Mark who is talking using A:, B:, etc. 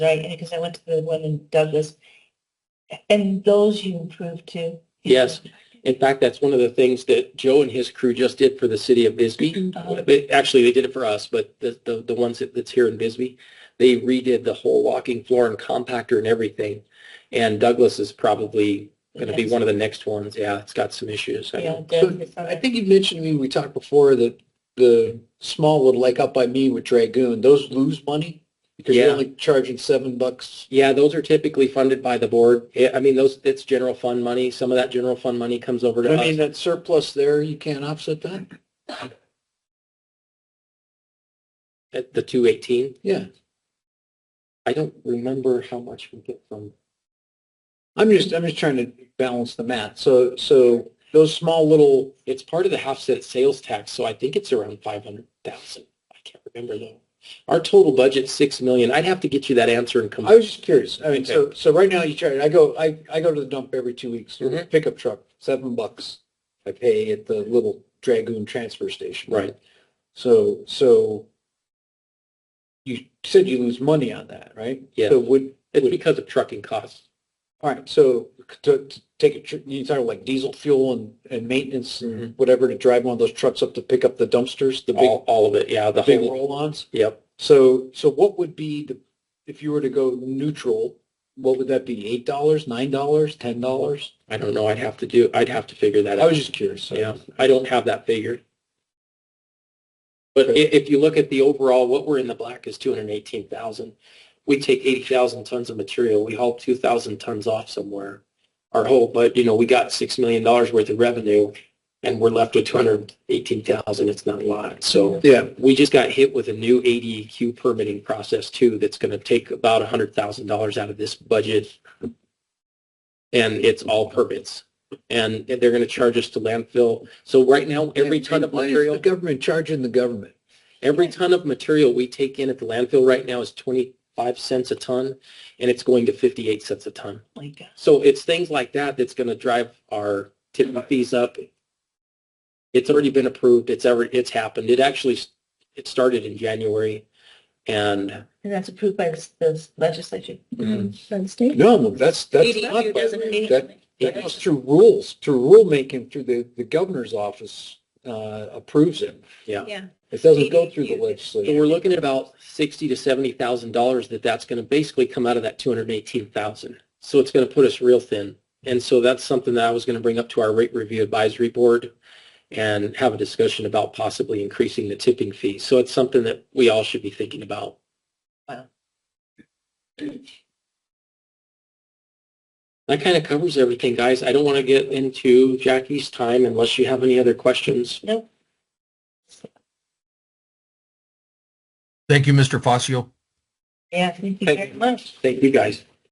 A: right? And because I went to the one in Douglas. And those you improved too?
B: Yes. In fact, that's one of the things that Joe and his crew just did for the city of Bisbee.
A: Uh-huh.
B: They- Actually, they did it for us, but the, the, the ones that, that's here in Bisbee, they redid the whole walking floor and compactor and everything. And Douglas is probably going to be one of the next ones. Yeah, it's got some issues. I
A: Yeah,
B: know.
A: Douglas,
C: I think you mentioned to me, we talked before that the small one, like up by me with Dragoon, those lose money because you're
B: Yeah.
C: only charging seven bucks.
B: Yeah, those are typically funded by the board. Yeah, I mean, those, it's general fund money. Some of that general fund money comes over
C: I
B: to
C: mean,
B: us.
C: that surplus there, you can't offset that?
B: At the 218,
C: Yeah.
B: I don't remember how much we get from.
C: I'm just, I'm just trying to balance the math. So, so those small little,
B: It's part of the half cent sales tax, so I think it's around five hundred thousand. I can't remember though. Our total budget's six million. I'd have to get you that answer and come.
C: I was just curious. I mean, so, so right now you charge, I go, I, I go to the dump every two weeks, with a pickup truck, seven bucks. I pay at the little Dragoon transfer station.
B: Right.
C: So, so you said you lose money on that, right?
B: Yeah.
C: So would,
B: It's
C: would-
B: because of trucking costs.
C: all right, so to, to take a, tr- you talking like diesel fuel and, and maintenance and whatever to drive one of those trucks up to pick up the dumpsters, the big,
B: All, all of it. Yeah, the
C: big
B: whole.
C: roll-ons?
B: Yep.
C: So, so what would be the, if you were to go neutral, what would that be? Eight dollars, nine dollars, ten dollars?
B: I don't know. I'd have to do, I'd have to figure that
C: I
B: out.
C: was just curious. so-
B: Yeah, I don't have that figured. But i- if you look at the overall, what we're in the black is two hundred and eighteen thousand. We take eighty thousand tons of material, we haul two thousand tons off somewhere. Our whole, but you know, we got six million dollars worth of revenue and we're left with two hundred and eighteen thousand. It's not a lot. So
C: Yeah,
B: we just got hit with a new ADQ permitting process too, that's going to take about a hundred thousand dollars out of this budget. And it's all permits. And they're going to charge us to landfill. So right now, every
C: And-
B: ton
C: and
B: of
C: why is
B: material.
C: The government charging the government.
B: Every ton of material we take in at the landfill right now is 25 cents a ton, and it's going to 58 cents a ton.
A: my God.
B: So it's things like that that's going to drive our tip and fees up. It's already been approved. It's ever, it's happened. It actually, s- it started in January. And
A: And that's approved by the- the legislature?
B: Mhm.
A: By the state?
C: No, that's, that's not.
A: ADQ
C: by-
A: doesn't
C: that-
A: have.
C: It goes through rules, through rulemaking, through the, the governor's office uh, approves it.
A: Yeah.
C: It doesn't go through the
B: so
C: legislature.
B: we're looking at about 60 to 70,000 dollars that that's going to basically come out of that 218,000. So it's going to put us real thin. And so that's something that I was going to bring up to our rate review advisory board. and have a discussion about possibly increasing the tipping fee. So it's something that we all should be thinking about.
A: Wow.
B: That kind of covers everything, guys. I don't want to get into Jackie's time unless you have any other questions.
A: Nope.
D: Thank you, Mr. Fazio.
A: Yeah, thank you
B: Thank
A: very
B: you.
A: much.
B: Thank you, guys.